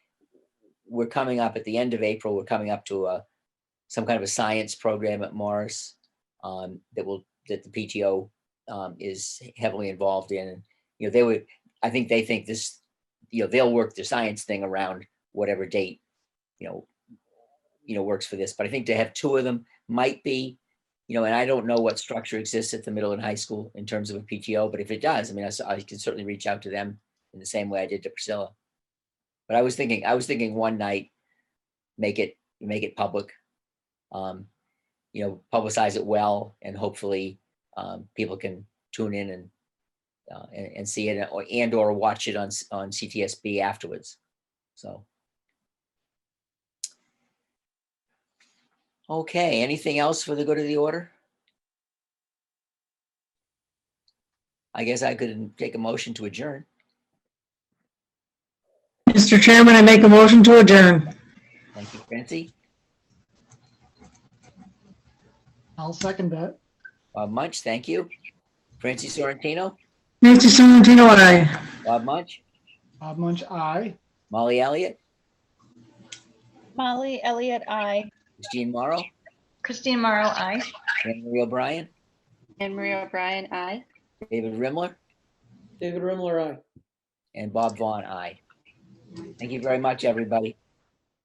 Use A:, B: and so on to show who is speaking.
A: we're coming up at the end of April, we're coming up to a, some kind of a science program at Morris um, that will, that the PTO um, is heavily involved in. And You know, they would, I think they think this, you know, they'll work the science thing around whatever date, you know, you know, works for this, but I think to have two of them might be, you know, and I don't know what structure exists at the middle and high school in terms of a PTO, but if it does, I mean, I s- I can certainly reach out to them in the same way I did to Priscilla. But I was thinking, I was thinking one night, make it, make it public. Um, you know, publicize it well and hopefully um, people can tune in and uh, and, and see it or and or watch it on s- on CTSB afterwards. So. Okay, anything else for the good of the order? I guess I could take a motion to adjourn.
B: Mr. Chairman, I make a motion to adjourn.
A: Thank you, Francie.
B: I'll second that.
A: Bob Munch, thank you. Francie Sorrentino,
B: Nancy Sorrentino, aye.
A: Bob Munch,
B: Bob Munch, aye.
A: Molly Elliott,
C: Molly Elliott, I.
A: Christine Morrow,
C: Christine Morrow, I.
A: Anne Marie O'Brien,
C: And Maria O'Brien, I.
A: David Rimler,
D: David Rimler, aye.
A: and Bob Vaughn, aye. Thank you very much, everybody.